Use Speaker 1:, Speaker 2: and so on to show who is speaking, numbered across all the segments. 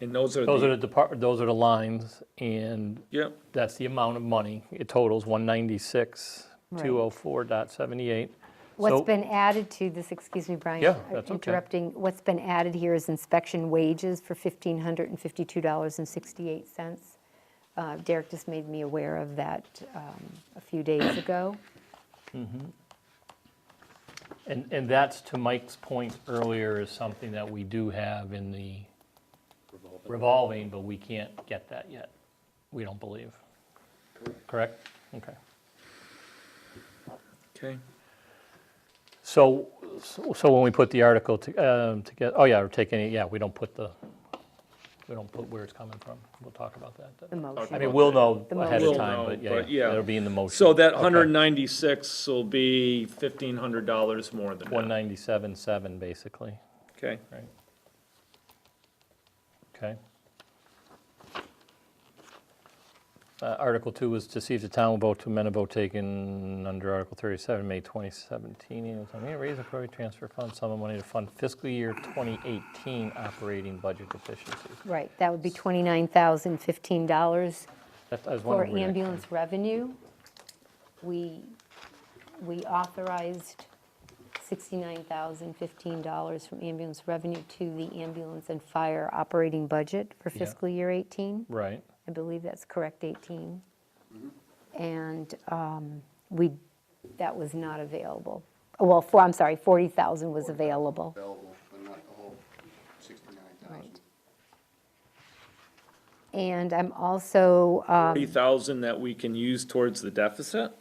Speaker 1: And those are
Speaker 2: Those are
Speaker 1: the,
Speaker 2: the depart, those are the lines, and
Speaker 1: yep,
Speaker 2: that's the amount of money. It totals one ninety-six,
Speaker 3: Right.
Speaker 2: two oh four dot seventy-eight.
Speaker 3: What's been added to this, excuse me, Brian?
Speaker 2: Yeah,
Speaker 3: uh,
Speaker 2: that's okay.
Speaker 3: Interrupting, what's been added here is inspection wages for $1,552.68. Uh, Derek just made me aware of that um, a few days ago.
Speaker 2: And, and that's to Mike's point earlier, is something that we do have in the revolving, but we can't get that yet. We don't believe. Correct? Okay.
Speaker 1: okay.
Speaker 2: So, so so when we put the article together, oh yeah, we're taking it, yeah, we don't put the, we don't put where it's coming from. We'll talk about that.
Speaker 3: The
Speaker 2: then.
Speaker 3: motion.
Speaker 2: I mean, we'll know
Speaker 3: The
Speaker 2: ahead of
Speaker 3: motion.
Speaker 2: time,
Speaker 1: We'll know,
Speaker 2: but yeah,
Speaker 1: but yeah.
Speaker 2: yeah, it'll be in the motion.
Speaker 1: So that
Speaker 2: Okay.
Speaker 1: hundred and ninety-six will be fifteen hundred dollars more than that,
Speaker 2: 197.7, basically,
Speaker 1: okay?
Speaker 2: right? Okay. Uh, Article 2 was to see if the town will vote to amend a vote taken under Article 37, May 2017, annual town meeting, raise appropriate transfer fund sum of money to fund fiscal year 2018 operating budget deficiencies.
Speaker 3: Right, that would be $29,015
Speaker 2: That- I was
Speaker 3: for
Speaker 2: wondering where that came
Speaker 3: ambulance revenue. We, we authorized $69,015 from ambulance revenue to the ambulance and fire operating budget for
Speaker 2: Yeah.
Speaker 3: fiscal year 18.
Speaker 2: from. Right,
Speaker 3: I believe that's correct, 18. And um, we, that was not available. Well, for, I'm sorry, 40,000 was available.
Speaker 4: available, but not the whole sixty-nine thousand.
Speaker 3: And I'm also, um,
Speaker 1: Three thousand that we can use towards the deficit,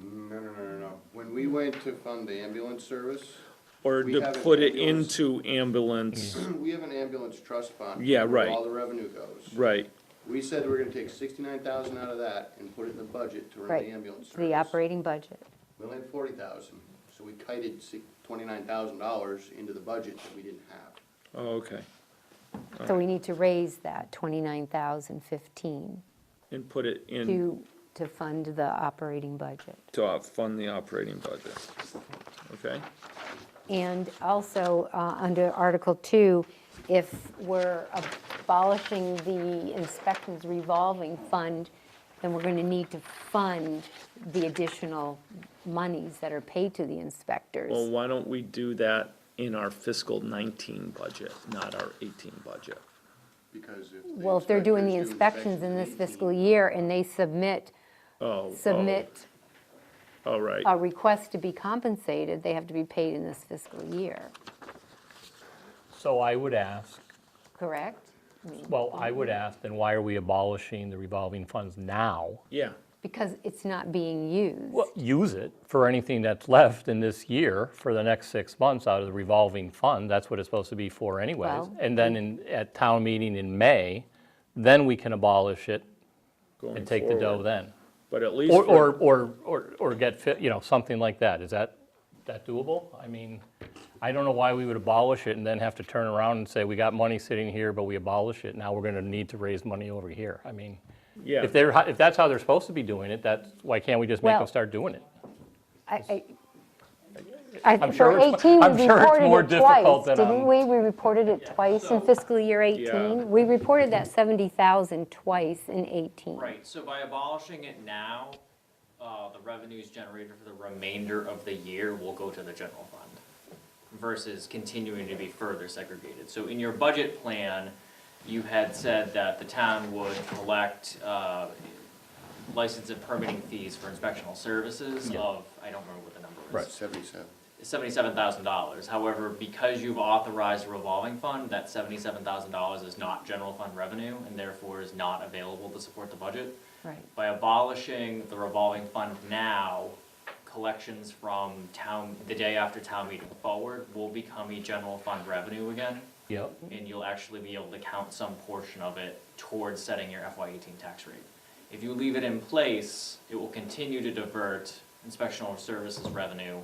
Speaker 4: No, no, no, no, no. When we went to fund the ambulance service,
Speaker 1: or
Speaker 4: We
Speaker 1: to
Speaker 4: have an
Speaker 1: put it
Speaker 4: ambulance.
Speaker 1: into ambulance,
Speaker 4: we have an ambulance trust fund.
Speaker 1: Yeah,
Speaker 4: where
Speaker 1: right.
Speaker 4: All the revenue goes.
Speaker 1: right?
Speaker 4: We said we're gonna take sixty-nine thousand out of that and put it in the budget to run
Speaker 3: Right,
Speaker 4: the ambulance service.
Speaker 3: the operating budget.
Speaker 4: We only had forty thousand, so we kited twenty-nine thousand dollars into the budget that we didn't have.
Speaker 1: Oh, okay,
Speaker 3: So we need to raise that 29,015
Speaker 1: and put it in
Speaker 3: to, to fund the operating budget.
Speaker 1: to uh, fund the operating budget, okay?
Speaker 3: And also, uh, under Article 2, if we're abolishing the inspections revolving fund, then we're going to need to fund the additional monies that are paid to the
Speaker 1: Well,
Speaker 3: inspectors.
Speaker 1: why don't we do that in our fiscal nineteen budget, not our eighteen budget?
Speaker 4: Because if. the
Speaker 3: Well, if they're doing the
Speaker 4: inspectors do
Speaker 3: inspections in this
Speaker 4: 18,
Speaker 3: fiscal year and they submit,
Speaker 1: Oh, oh,
Speaker 3: submit
Speaker 1: all right,
Speaker 3: a request to be compensated, they have to be paid in this fiscal year,
Speaker 2: so I would ask,
Speaker 3: correct?
Speaker 2: well, I would ask, then why are we abolishing the revolving funds now?
Speaker 1: yeah,
Speaker 3: Because it's not being used.
Speaker 2: Well, use it for anything that's left in this year for the next six months out of the revolving fund. That's what it's supposed to be for anyways.
Speaker 3: Well-
Speaker 2: And then in, at town meeting in May, then we can abolish it
Speaker 1: going
Speaker 2: and take the dough
Speaker 1: forward.
Speaker 2: then.
Speaker 1: But at least.
Speaker 2: Or,
Speaker 1: we're-
Speaker 2: or, or, or, or get fit, you know, something like that. Is that, that doable? I mean, I don't know why we would abolish it and then have to turn around and say, we got money sitting here, but we abolish it. Now we're gonna need to raise money over here. I mean,
Speaker 1: Yeah.
Speaker 2: if they're, if that's how they're supposed to be doing it, that's, why can't we just make
Speaker 3: Well-
Speaker 2: them start doing it?
Speaker 3: I- I- I-
Speaker 2: I'm
Speaker 3: For
Speaker 2: sure it's mu-
Speaker 3: 18,
Speaker 2: I'm
Speaker 3: we
Speaker 2: sure it's more
Speaker 3: reported it
Speaker 2: difficult
Speaker 3: twice,
Speaker 2: than
Speaker 3: didn't
Speaker 2: on-
Speaker 3: we? We reported it twice in fiscal year 18. We reported that 70,000 twice in 18.
Speaker 5: Right, so by abolishing it now, uh, the revenues generated for the remainder of the year will go to the general fund versus continuing to be further segregated. So in your budget plan, you had said that the town would collect, uh, license and permitting fees for inspectional services of, I don't remember what the number is.
Speaker 4: Seventy-seven.
Speaker 5: Seventy-seven thousand dollars. However, because you've authorized a revolving fund, that seventy-seven thousand dollars is not general fund revenue and therefore is not available to support the budget.
Speaker 3: Right.
Speaker 5: By abolishing the revolving fund now, collections from town, the day after town meeting forward will become a general fund revenue again.
Speaker 2: Yep.
Speaker 5: And you'll actually be able to count some portion of it towards setting your FY eighteen tax rate. If you leave it in place, it will continue to divert inspectional services revenue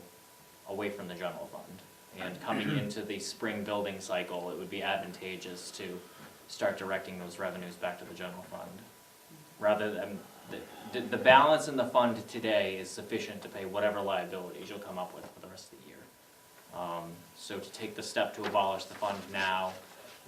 Speaker 5: away from the general fund. And coming into the spring building cycle, it would be advantageous to start directing those revenues back to the general fund. Rather than, the, the, the balance in the fund today is sufficient to pay whatever liabilities you'll come up with for the rest of the year. Um, so to take the step to abolish the fund now